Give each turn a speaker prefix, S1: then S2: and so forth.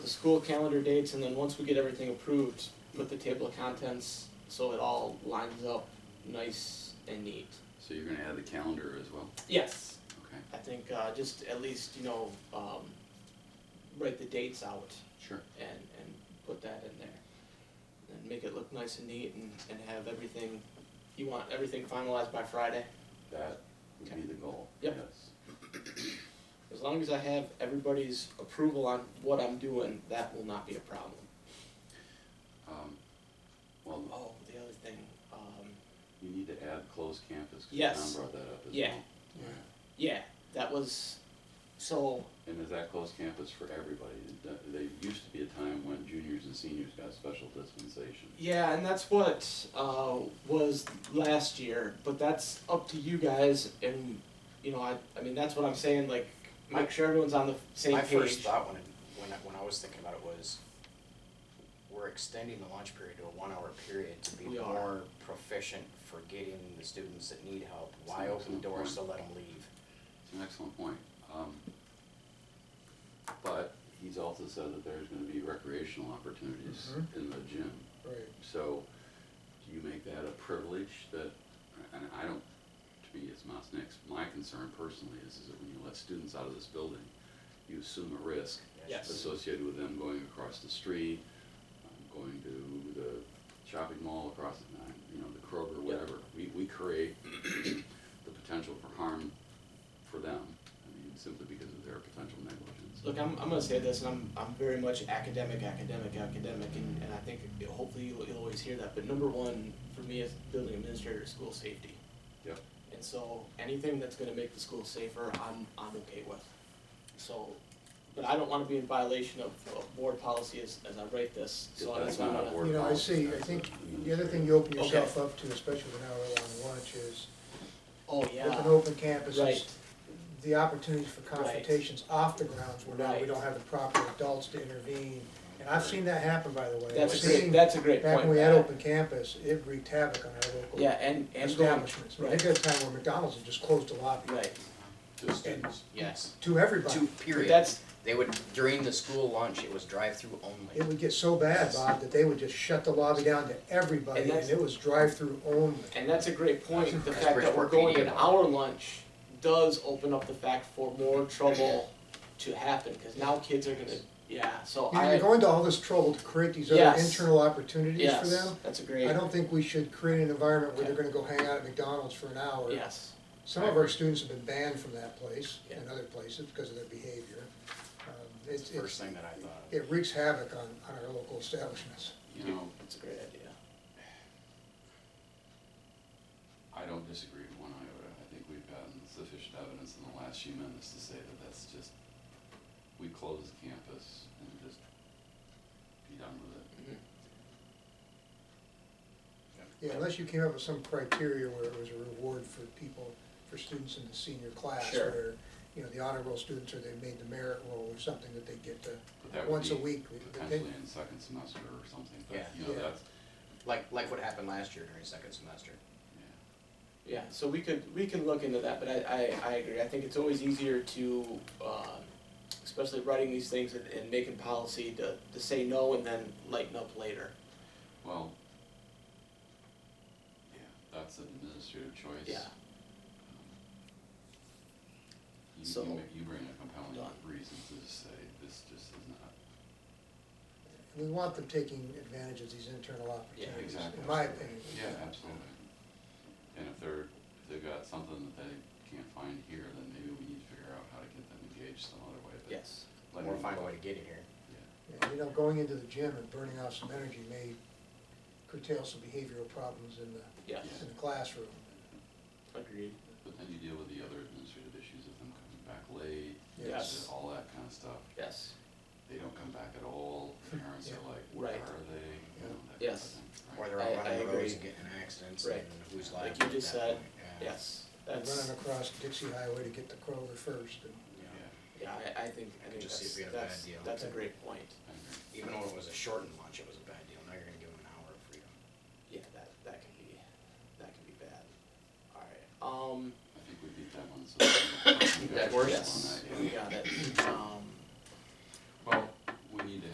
S1: school calendar dates, and then once we get everything approved, put the table of contents so it all lines up nice and neat.
S2: So you're gonna add the calendar as well,
S1: Yes,
S2: okay,
S1: I think uh, just at least, you know, um, write the dates out
S2: sure.
S1: and, and put that in there. And make it look nice and neat and, and have everything, you want everything finalized by Friday.
S2: That would be the goal, yes.
S1: Yep. As long as I have everybody's approval on what I'm doing, that will not be a problem.
S2: Um, well,
S1: Oh, the other thing, um,
S2: you need to add closed campus, cause
S1: Yes.
S2: Tom brought that up as well.
S1: Yeah. yeah, that was, so,
S2: And is that closed campus for everybody? Th- There used to be a time when juniors and seniors got special dispensation.
S1: yeah, and that's what, uh, was last year, but that's up to you guys, and, you know, I, I mean, that's what I'm saying, like, make sure everyone's on the same
S3: My
S1: page.
S3: first thought when, it- when, I- when I was thinking about it was, we're extending the lunch period to a one-hour period to be
S1: We are.
S3: more proficient for getting the students that need help. Why
S2: Sounds
S3: open
S2: like a
S3: doors
S2: point.
S3: to let them leave?
S2: It's an excellent point. Um, But he's also said that there's gonna be recreational opportunities
S4: Mhm.
S2: in the gym.
S4: Right.
S2: So, do you make that a privilege that, and I don't, to me, it's not next, my concern personally is, is that when you let students out of this building, you assume a risk
S1: Yes.
S2: associated with them going across the street, um, going to the shopping mall across, the uh, you know, the Kroger, whatever. We, we create the potential for harm for them, I mean, simply because of their potential negligence.
S1: Look, I'm, I'm gonna say this, and I'm, I'm very much academic, academic, academic, and, and I think it- hopefully you'll, you'll always hear that, but number one for me as building administrator is school safety.
S2: Yep.
S1: And so anything that's gonna make the school safer, I'm, I'm okay with. So, but I don't wanna be in violation of, of board policy as, as I write this, so
S2: That's
S1: that's why I'm
S2: not a
S1: gonna-
S2: board
S4: You know, I
S2: policy,
S4: see, I
S2: that's
S4: think
S2: a-
S4: The other thing you open yourself up to, especially with an hour-long lunch, is
S1: Oh,
S4: with an
S1: yeah,
S4: open campus,
S1: right,
S4: is the opportunities for confrontations off the grounds where now we
S1: Right.
S4: don't have the proper adults to intervene. And I've seen that happen, by the way.
S1: that's
S4: I've
S1: a great,
S4: seen
S1: that's a great point.
S4: Back when we had open campus, it wreaked havoc on our
S1: Yeah,
S4: local
S1: and, and going,
S4: establishments. I think at a time where McDonald's had just closed the lobby
S1: right,
S2: To students,
S1: yes,
S4: to everybody.
S3: Two,
S1: but
S3: period.
S1: that's,
S3: They would, during the school lunch, it was drive-through
S4: It
S3: only.
S4: would get so bad, Bob, that they would just shut the lobby down to everybody,
S1: And
S4: and
S1: that's-
S4: it was drive-through only.
S1: And that's a great point, the
S3: That's
S1: fact that we're
S3: Bridgeport
S1: going an
S3: PD.
S1: hour lunch does open up the fact for more trouble to happen, cause now kids are gonna, yeah, so
S4: You know, You're
S1: I,
S4: going to all this trouble to create these other
S1: Yes.
S4: internal opportunities for
S1: yes,
S4: them.
S1: that's a great,
S4: I don't think we should create an environment where they're
S1: Okay.
S4: gonna go hang out at McDonald's for an hour.
S1: yes,
S4: Some of our students have been banned from that place and
S1: Yeah.
S4: other places because of their behavior. Um, It's,
S3: First
S4: it's,
S3: thing that I thought of.
S4: it wreaks havoc on, on our local establishments.
S2: you know,
S1: that's a great idea.
S2: I don't disagree with one iota. I think we've gotten sufficient evidence in the last few minutes to say that that's just, we close the campus and just be done with it.
S1: mm-hmm,
S4: Yeah, unless you came up with some criteria where it was a reward for people, for students in the senior class
S1: Sure.
S4: where, you know, the honor roll students or they made the merit roll or something that they get to,
S2: But that would
S4: once a
S2: be
S4: week. that they-
S2: potentially in second semester or something, but
S3: Yeah.
S2: you know,
S4: Yeah.
S2: that's,
S3: Like, like what happened last year during second semester.
S2: yeah.
S1: Yeah, so we could, we can look into that, but I, I, I agree, I think it's always easier to, um, especially writing these things and, and making policy to, to say no and then lighten up later.
S2: Well, yeah, that's an administrative choice. Um,
S1: Yeah.
S2: You,
S1: So-
S2: you ma- you bring a compelling
S1: Done.
S2: reason to say this just is not,
S4: We want them taking advantage of these internal opportunities,
S2: exactly.
S4: in my opinion.
S2: Yeah, absolutely. And if they're, if they've got something that they can't find here, then maybe we need to figure out how to get them engaged some other way, but.
S1: Yes,
S2: let
S3: Or
S2: them
S3: find a
S2: go.
S3: way to get it here.
S2: Yeah,
S4: And, you know, going into the gym and burning off some energy may curtail some behavioral problems in the,
S1: yes,
S4: in the classroom.
S1: agreed,
S2: But then you deal with the other administrative issues of them coming back late,
S1: Yes.
S2: all that kind of stuff.
S1: yes,
S2: They don't come back at all, parents are like, where
S1: Right.
S2: are they? You know, that kind of
S1: Yes.
S2: thing,
S3: Or
S2: right?
S3: they're
S1: I-
S3: out
S1: I
S3: running roads
S1: agree.
S3: and getting in accidents
S1: Right.
S3: and who's liable
S1: Like
S3: at
S1: you just
S3: that
S1: said,
S3: point. Yeah.
S1: yes,
S4: And
S1: that's.
S4: Running across Dixie Highway to get to Kroger first, and
S3: Yeah.
S1: Yeah, I, I think, I
S3: I
S1: think
S3: just see
S1: that's,
S3: if we had a bad
S1: that's,
S3: deal.
S1: that's a great point.
S2: I agree.
S3: Even though it was a shortened lunch, it was a bad deal. Now you're gonna give them an hour of freedom.
S1: Yeah, that, that can be, that can be bad. Alright, um,
S2: I think we beat that one, so. we got
S1: that
S2: a first
S1: works,
S2: on that,
S1: we
S2: yeah.
S1: got it. Um,